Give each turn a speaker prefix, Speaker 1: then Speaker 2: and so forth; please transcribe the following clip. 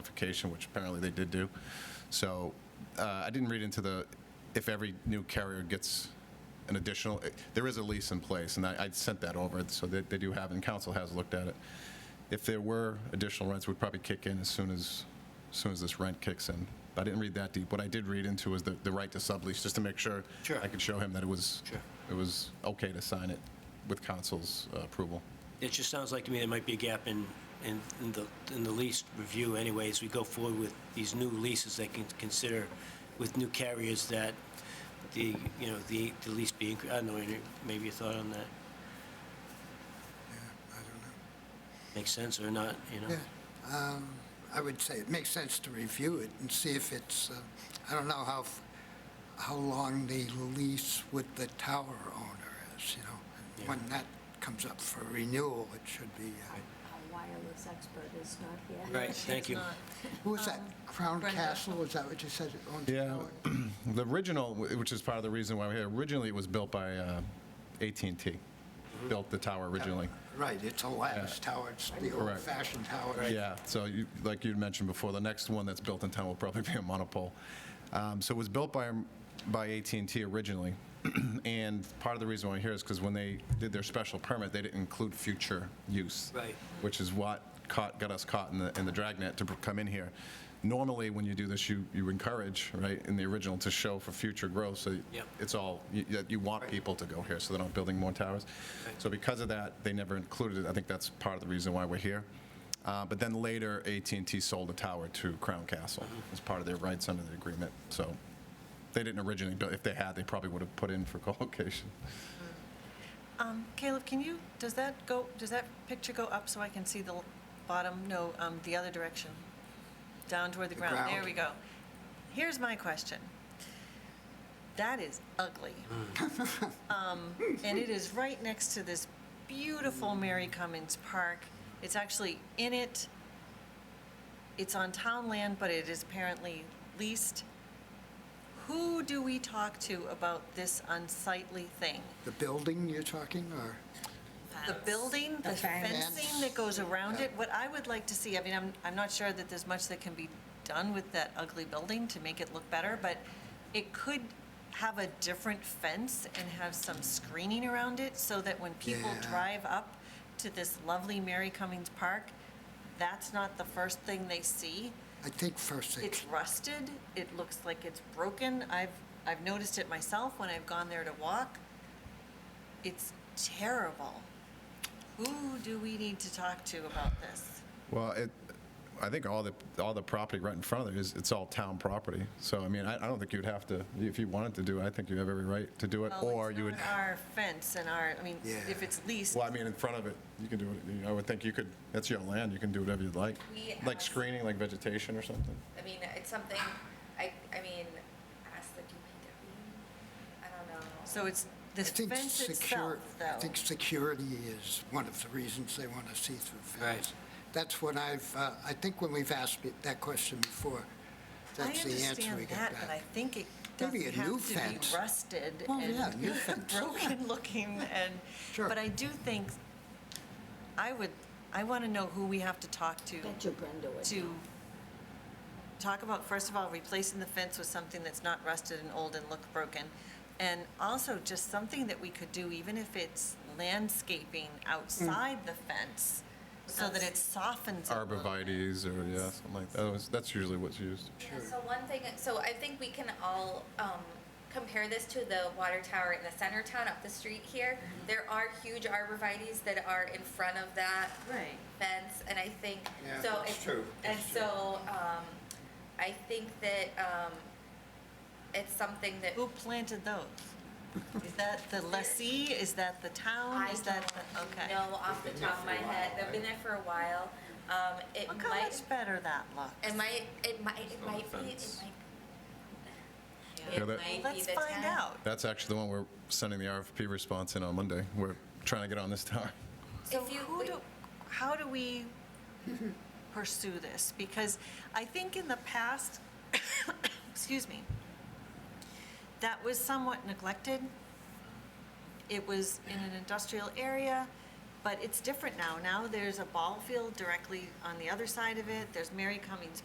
Speaker 1: notification, which apparently they did do. So uh, I didn't read into the, if every new carrier gets an additional, there is a lease in place, and I I sent that over, so they they do have, and council has looked at it. If there were additional rents, we'd probably kick in as soon as, as soon as this rent kicks in. But I didn't read that deep. What I did read into was the, the right to sublease, just to make sure
Speaker 2: Sure.
Speaker 1: I could show him that it was,
Speaker 2: Sure.
Speaker 1: it was okay to sign it with council's uh, approval.
Speaker 2: It just sounds like to me there might be a gap in, in in the, in the lease review anyway, as we go forward with these new leases that can consider with new carriers that the, you know, the, the lease being, I don't know, any- maybe your thought on that
Speaker 3: I don't
Speaker 2: makes sense or not, you know?
Speaker 3: know. Yeah, um, I would say it makes sense to review it and see if it's, uh, I don't know how, f- how long the lease with the tower owner is, you know? When that comes up for renewal, it should be, uh,
Speaker 4: Our wireless expert is not here.
Speaker 2: Right, thank you.
Speaker 3: who was that? Crown
Speaker 5: Brenda.
Speaker 3: Castle, is that what you said? it owns?
Speaker 1: Yeah, the original, wh- which is part of the reason why we're here, originally it was built by uh, AT&T, built the tower originally.
Speaker 3: Right, it's a lattice tower, it's the
Speaker 1: Correct.
Speaker 3: old-fashioned tower.
Speaker 1: Yeah, so you- like you mentioned before, the next one that's built in town will probably be a monopole. Um, So it was built by, by at and t originally, and part of the reason why I'm here is because when they did their special permit, they didn't include future use.
Speaker 2: Right.
Speaker 1: Which is what caught, got us caught in the, in the dragnet to pr- come in here. Normally, when you do this, you, you encourage, right, in the original, to show for future growth, so
Speaker 2: Yep.
Speaker 1: it's all, you- you you want people to go here, so they're not building more towers. So because of that, they never included it, I think that's part of the reason why we're here. Uh, But then later, at and t sold the tower to Crown Castle as part of their rights under the agreement. So they didn't originally, build. if they had, they probably would have put in for co-location.
Speaker 5: Um, Caleb, can you, does that go, does that picture go up so I can see the l- bottom? No, um, the other direction, down toward the
Speaker 3: The
Speaker 5: ground. There
Speaker 3: ground.
Speaker 5: we go. Here's my question. That is ugly. Um, And it is right next to this beautiful Mary Cummins Park. It's actually in it. It's on town land, but it is apparently leased. Who do we talk to about this unsightly thing?
Speaker 3: The building you're talking, or?
Speaker 5: the building, the fencing
Speaker 3: Fence.
Speaker 5: that goes around
Speaker 3: Yeah.
Speaker 5: it, what I would like to see, I mean, I'm, I'm not sure that there's much that can be done with that ugly building to make it look better, but it could have a different fence and have some screening around it so that when people
Speaker 3: Yeah.
Speaker 5: drive up to this lovely Mary Cummings Park, that's not the first thing they see.
Speaker 3: I think first they
Speaker 5: It's rusted, it looks like it's broken, I've, I've noticed it myself when I've gone there to walk. It's terrible. Who do we need to talk to about this?
Speaker 1: Well, it, I think all the, all the property right in front of it is, it's all town property. So, I mean, I, I don't think you'd have to, if you wanted to do it, I think you have every right to do it,
Speaker 5: Well,
Speaker 1: or
Speaker 5: it's
Speaker 1: you would.
Speaker 5: not Our fence and our, I mean, if
Speaker 3: Yeah.
Speaker 5: it's leased,
Speaker 1: Well, I mean, in front of it, you can do it, you know, I would think you could, that's your land, you can do whatever you'd like.
Speaker 6: We
Speaker 1: Like
Speaker 6: asked-
Speaker 1: screening, like vegetation or something.
Speaker 6: I mean, it's something, I, I mean, ask the DPW, I don't know.
Speaker 5: so it's, the
Speaker 3: I think
Speaker 5: fence
Speaker 3: secure-
Speaker 5: itself,
Speaker 3: I
Speaker 5: though.
Speaker 3: think security is one of the reasons they want to see through fence.
Speaker 2: Right.
Speaker 3: That's what I've, uh, I think when we've asked it- that question before,
Speaker 5: I
Speaker 3: that's the answer we
Speaker 5: understand
Speaker 3: get
Speaker 5: that, but I
Speaker 3: back.
Speaker 5: think it
Speaker 3: Maybe
Speaker 5: doesn't
Speaker 3: a new
Speaker 5: have to be
Speaker 3: fence.
Speaker 5: rusted
Speaker 3: Well, yeah, new
Speaker 5: and
Speaker 3: fence.
Speaker 5: broken looking and,
Speaker 3: Sure.
Speaker 5: but I do think, I would, I want to know who we have to talk to
Speaker 4: Bet you Brenda would.
Speaker 5: to talk about, first of all, replacing the fence with something that's not rusted and old and look broken. And also just something that we could do, even if it's landscaping
Speaker 3: Mm.
Speaker 5: outside the fence, so that it softens it a little.
Speaker 1: Arborvitae's or, yeah, something like that. That was- That's usually what's used.
Speaker 6: Yeah, So one thing, so I think we can all um, compare this to the water tower in the center town up the street here.
Speaker 3: Mm-hmm.
Speaker 6: There are huge arborvitae's that are in front of that
Speaker 5: Right.
Speaker 6: fence, and I think,
Speaker 3: Yeah,
Speaker 6: so.
Speaker 3: that's
Speaker 6: it's-
Speaker 3: true,
Speaker 6: And
Speaker 3: that's true.
Speaker 6: so um, I think that um, it's something that,
Speaker 5: Who planted those? Is that the lessee? Is that the town?
Speaker 6: I
Speaker 5: Is that, the- okay.
Speaker 6: know off the top of my head, they've been there for a while. Um, It
Speaker 5: Look how
Speaker 6: might
Speaker 5: much better that looks.
Speaker 6: It might, it might, it might be, it
Speaker 1: Yeah,
Speaker 6: might.
Speaker 1: that-
Speaker 6: It might be
Speaker 5: Let's
Speaker 6: the
Speaker 5: find
Speaker 6: town.
Speaker 5: out.
Speaker 1: That's actually the one we're sending the RFP response in on Monday. We're trying to get on this tower.
Speaker 5: So
Speaker 6: If you-
Speaker 5: who do, how do we pursue this? Because I think in the past, excuse me, that was somewhat neglected. It was in an industrial area, But it's different now. Now there's a ball field directly on the other side of it. There's Mary Cummings